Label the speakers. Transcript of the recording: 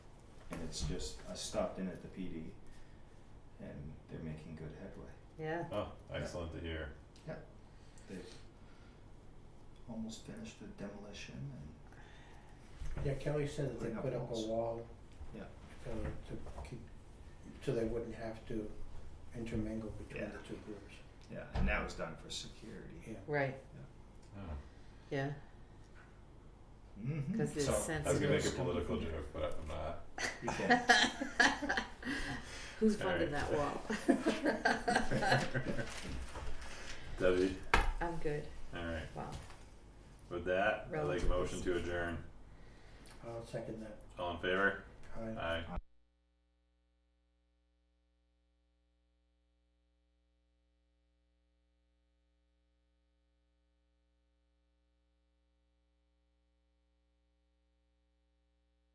Speaker 1: It's just I stopped in at the PD and they're making good headway.
Speaker 2: Yeah,
Speaker 3: Oh, excellent to hear.
Speaker 1: They've almost finished the demolition and
Speaker 4: Yeah, Kelly said that they
Speaker 1: Putting up
Speaker 4: put up a
Speaker 1: walls.
Speaker 4: wall.
Speaker 1: Yeah.
Speaker 4: uh, to keep, so they wouldn't have to intermingle between
Speaker 1: Yeah.
Speaker 4: the two groups.
Speaker 1: yeah, and that was done for security.
Speaker 2: right,
Speaker 3: Oh,
Speaker 2: yeah,
Speaker 1: Mm-hmm.
Speaker 2: cause it's
Speaker 1: so,
Speaker 2: sensitive.
Speaker 3: I was gonna make a political joke, but I'm not.
Speaker 1: you can-
Speaker 2: Who's funding that wall?
Speaker 3: Debbie,
Speaker 2: I'm good,
Speaker 3: alright,
Speaker 2: wow,
Speaker 3: with that, I'd like a motion to adjourn.
Speaker 4: I'll second that.
Speaker 3: All in favor?
Speaker 4: Aye.
Speaker 3: Aye.